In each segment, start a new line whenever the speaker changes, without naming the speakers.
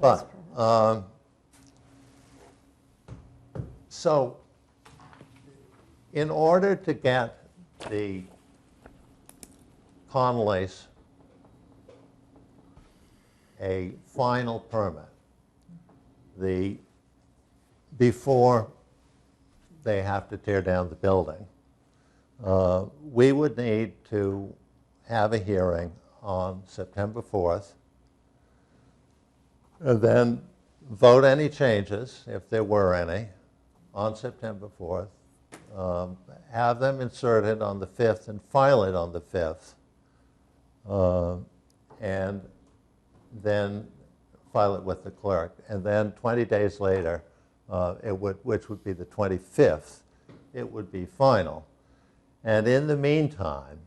But, um, so, in order to get the Conleys a final permit, the, before they have to tear down the building, uh, we would need to have a hearing on September 4th, and then vote any changes, if there were any, on September 4th. um, Have them inserted on the 5th and file it on the 5th. uh, And then file it with the clerk. And then 20 days later, uh, it would, which would be the 25th, it would be final. And in the meantime,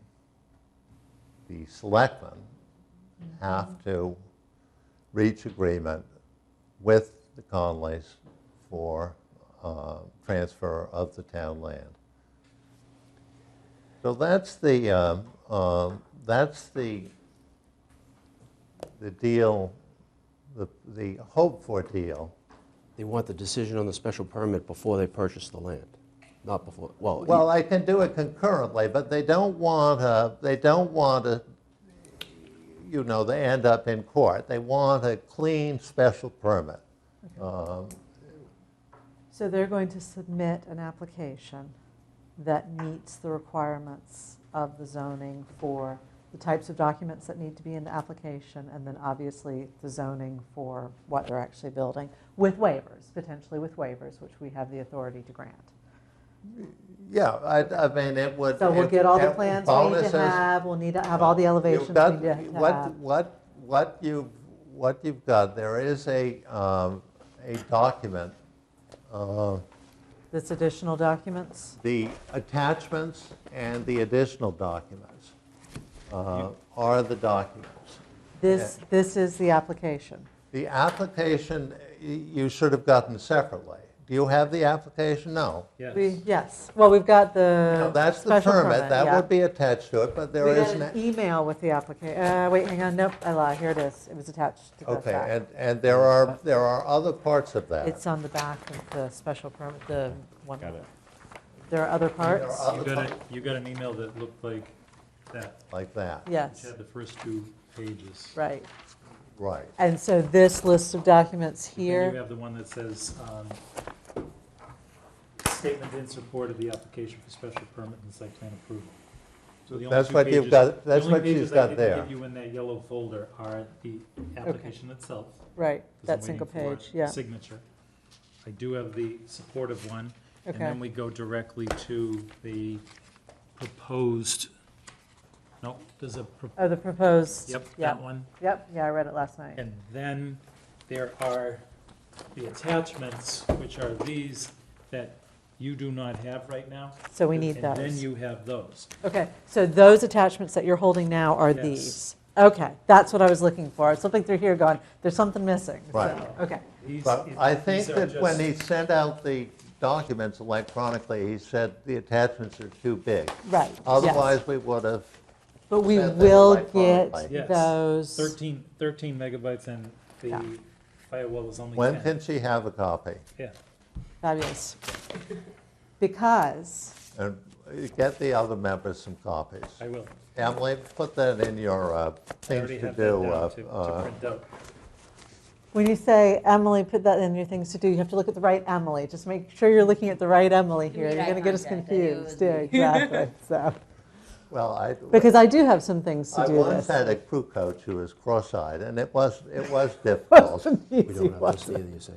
the selectmen have to reach agreement with the Conleys for uh, transfer of the town land. So that's the, um, um, that's the, the deal, the, the hope for deal.
They want the decision on the special permit before they purchase the land, not before, well,
Well, I can do it concurrently, but they don't want to, they don't want to, you know, they end up in court. They want a clean special permit. Um,
So they're going to submit an application that meets the requirements of the zoning for the types of documents that need to be in the application, and then obviously the zoning for what they're actually building, with waivers, potentially with waivers, which we have the authority to grant.
Yeah, I, I mean, it would.
So we'll
it-
get all the
it-
plans we need
bonuses.
to have, we'll need to have all the elevations
You've
we
got-
need to to
What,
have.
what, what you, what you've got, there is a, um, a document, uh,
This additional documents,
the attachments and the additional documents uh, are the documents.
this, this is the application.
The application, y- you should have gotten separately. Do you have the application? No.
We- Yes, well, we've got
No,
the
That's the
special permit,
permit, that
yeah.
would be attached to it, but there
We got
is
an
an,
email with the application, uh, wait, hang on, nope, I lied, here it is, it was attached to the
okay,
back.
and, uh, and there are, there are other parts of that.
It's on the back of the special permit, the one,
Got it.
there are other
There are
parts?
other
You got a,
parts
you got an email that looked like that,
Like that,
which
Yes,
had the first two pages.
right,
right.
and so this list of documents
Then you
here,
have the one that says, um, statement in support of the application for special permit and site plan approval. So the only
That's
two
what you've
pages-
got- that's what you've got
The only pages I
there.
didn't give you in that yellow folder are the application itself. 'cause
right,
I'm
that single
waiting for
page, yeah,
Signature. I do have the supportive one. And
Okay.
then we go directly to the proposed, no, there's a, pro-
oh, the proposed.
yep,
yeah.
that one.
Yep, yeah, I read it last night,
And then there are the attachments, which are these that you do not have right now.
so we need
And then
those.
you have those.
Okay, so those attachments that you're holding now are
Yes.
these? Okay, that's what I was looking for, something through here going, there's something missing,
Right.
so, okay.
These-
But I
these
think
are
that when
just-
he sent out the documents electronically, he said the attachments are too big.
Right, yes.
Otherwise, we would have,
But we
sent them
will
electronically.
get
Yes.
those,
13, 13 megabytes and
Yeah.
the firewall is only 10.
when can she have a copy?
Yeah,
fabulous. Because,
And get the other members some copies.
I will.
Emily, put that in your uh,
I
things
already
to
have that
do.
down
uh,
to- to
uh,
print out.
when you say, Emily, put that in your things to do, you have to look at the right Emily. Just make sure you're looking at the right Emily here.
need
You're
eye
going to get us
contact. I knew it
confused.
was
Yeah, exactly, so.
Well, I,
Because I do have some things to
I
do
once
this.
had a crew coach who was cross-eyed, and it was, it was difficult.
we don't have this either, you say.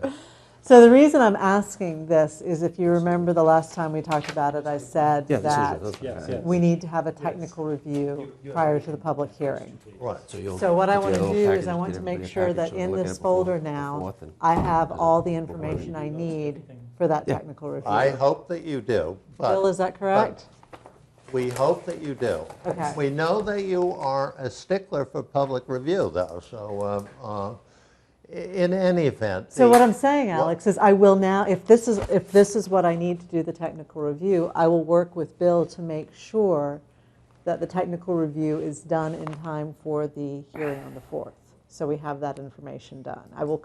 So the reason I'm asking this is if you remember the last time we talked about it, I said
Yeah, decision,
that
that's
Yes,
fine.
yes.
we need to have a technical review prior to the public hearing.
Right.
So you'll
So what I
put
want to
together a
do is
package,
I want
get
to make
everybody a
sure
package,
that
so we're
in
looking at
this
before
folder
the
now,
fourth and-
I have all the
Before the
information I need for that technical review.
I hope that you do,
Bill,
but
is that correct?
we hope that you do.
Okay.
We know that you are a stickler for public review, though, so um, uh, in any event.
So
the-
what I'm saying,
Well-
Alex, is I will now, if this is, if this is what I need to do the technical review, I will work with Bill to make sure that the technical review is done in time for the hearing on the 4th. So we have that information done. I will